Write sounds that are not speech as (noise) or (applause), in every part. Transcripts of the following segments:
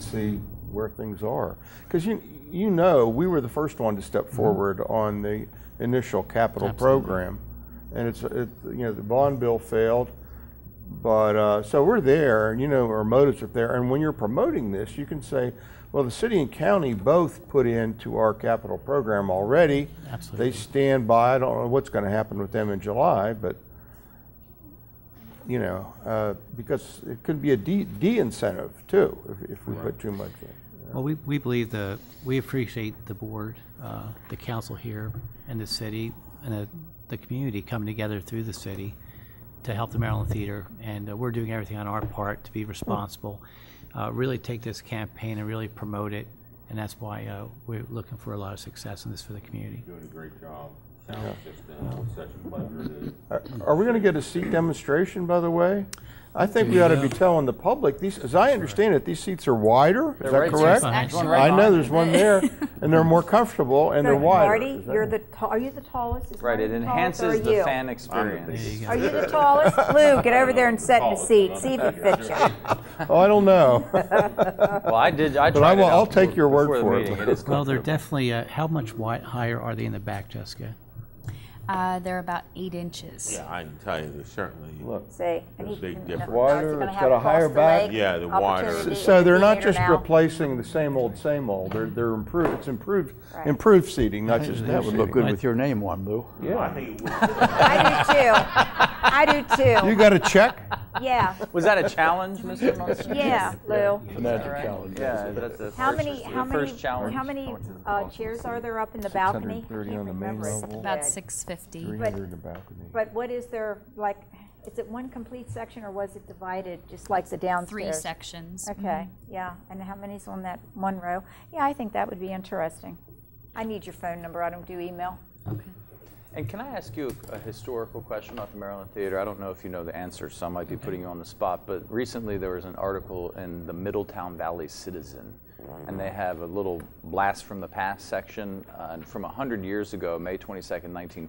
see where things are. Because you, you know, we were the first one to step forward on the initial capital program. And it's, it, you know, the bond bill failed, but, uh, so we're there, and you know, our motives are there. And when you're promoting this, you can say, well, the city and county both put into our capital program already. Absolutely. They stand by, I don't know what's gonna happen with them in July, but you know, uh, because it could be a de- de-incentive too if, if we put too much in. Well, we, we believe the, we appreciate the board, uh, the council here and the city and the, the community coming together through the city to help the Maryland Theater. And uh, we're doing everything on our part to be responsible, uh, really take this campaign and really promote it. And that's why, uh, we're looking for a lot of success in this for the community. Doing a great job. Sound system, such a pleasure to. Are, are we going to get a seat demonstration, by the way? I think we ought to be telling the public these. As I understand it, these seats are wider. Is that right there. correct? There's one right I know behind there's one there, and they're more comfortable and they're wider. Marty, Is that- you're the, ta- are you the tallest? Is Right, Marty it the tallest, enhances or are the Oh, you? fan experience. go. Are you (laughs) the tallest? Lou, get over there and sit in a Tallest, seat, but see if I'm it fits you. Oh, I don't know. Well, I did, I tried it But I will. out I'll take your word before the for meeting. it. (laughs) It is Well, they're comfortable. definitely, uh, how much wide, higher are they in the back, Jessica? Uh, they're about eight inches. Yeah, I can tell you, there's certainly, See? and he- There's a big no, difference. no, it's Wider, gonna it's have got a higher across the back. leg, Yeah, the wider. opportunity So in they're the not theater just now. replacing the same old, same old. They're they're improved. It's improved Right. improved seating, not just That new would seating. look good with your name on, Lou. I (laughs) do too. I do You too. got a check? (laughs) Yeah, Was that a challenge, Mr. Munson? yeah, Lou. That's a challenge. Yeah, that's the How first- many, the how many, first challenge. Oh, how many uh, chairs are there up in the balcony? I 630 can't on the main remember. level. It's About 650. But- Under the balcony. But what is there, like, is it one complete section or was it divided, just like the Three downstairs? sections. Mm-hmm. Okay, yeah, and how many's on that one row? Yeah, I think that would be interesting. I need your phone number, I don't do email. And can I ask you a historical question about the Maryland Theater? I don't know if you know the answer, so I might be putting you on the spot, but recently there was an article in the Middletown Valley Citizen, and they have a little blast from the past section. Uh, and from 100 years ago, May 22nd,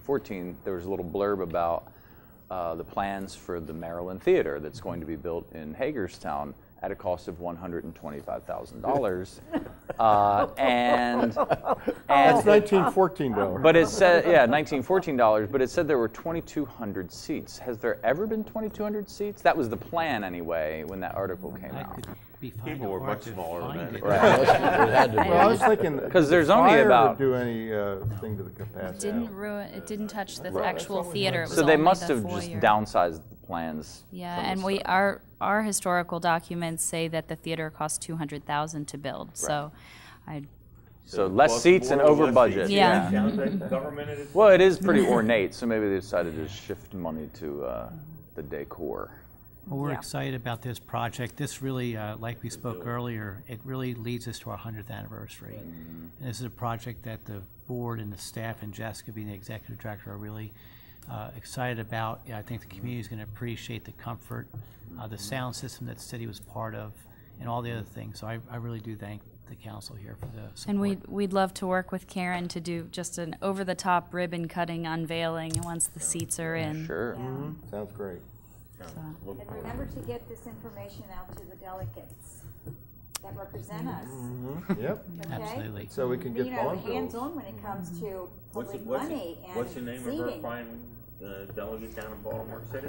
1914, there was a little blurb about uh, the plans for the Maryland Theater that's going to be built in Hagerstown at a cost of $125,000. uh, and, and (laughs) That's 1914 dollars. but it said, yeah, nineteen fourteen dollars. But it said there were twenty two hundred seats. Has there ever been twenty two hundred seats? That was the plan anyway when that article came I out. could be fine. People were much smaller than that. Well, I was thinking. 'Cause there's only fire would about- Do any uh, thing to the capacity. Didn't ruin, it didn't touch the actual theater. It was So they only must the have just foyer. downsized the plans. Yeah, from the and we, start. our, our historical documents say that the theater cost 200,000 to build, so I, So less seats and over budget. Yeah. Government at its Well, it is pretty ornate, so maybe they decided to shift money to uh, the decor. Well, we're Yeah. excited about this project. This really, uh, like we spoke earlier, it really leads us to our 100th anniversary. And this is a project that the board and the staff and Jessica being the executive director are really uh, excited about. Yeah, I think Mm-hmm. the community is going to appreciate the comfort, uh, the sound system that the city was part of, and all the other things. So I I really do thank the council here for the support. and we'd, we'd love to work with Karen to do just an over-the-top ribbon cutting unveiling once the seats are in. Sure. Mm-hmm. Sounds great. And remember to get this information out to the delegates that represent us, Mm-hmm. Mm-hmm. Yep. okay? Absolutely. So we can You get know, bond bills. hands-on when it comes to What's the- public what's the- money and What's the name of her seating. fine uh, delegate down in Baltimore (laughs) City?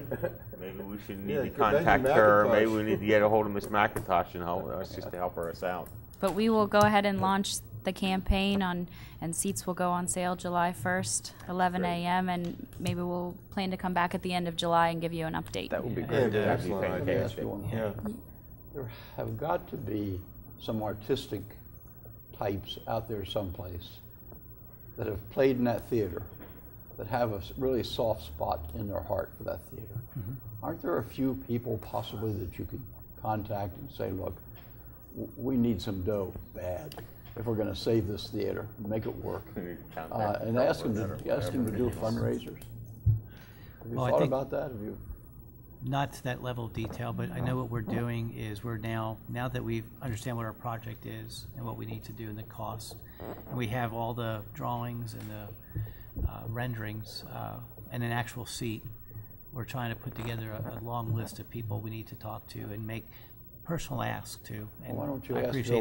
Maybe we should Yeah, need to 'cause Becky contact McIntosh. her, or maybe we need to get a hold of Miss McIntosh and help us just to help her us out. But we will go ahead and launch the campaign on, and seats will go on sale July 1st, 11 Great. a.m., and maybe we'll plan to come back at the end of July and give you an update. That would be Yeah, great. yeah, That'd be excellent idea. fantastic. Yeah. There have got to be some artistic types out there someplace that have played in that theater, that have a s- really soft spot in their heart for that theater. Mm-hmm. Aren't there a few people possibly that you could contact and say, look, w- we need some dough bad if we're going to save this theater, make it (laughs) work, uh, and ask them to ask them to do fundraisers. Have you Well, I thought think- about that? Have you? not to that level of detail, but I know what we're doing is we're now, now that we understand what our project is and what we need to do and the cost, and we have all the drawings and the uh, renderings uh, and an actual seat, we're trying to put together a, a long list of people we need to talk to and make personal asks to. And Why don't you I ask appreciate Bill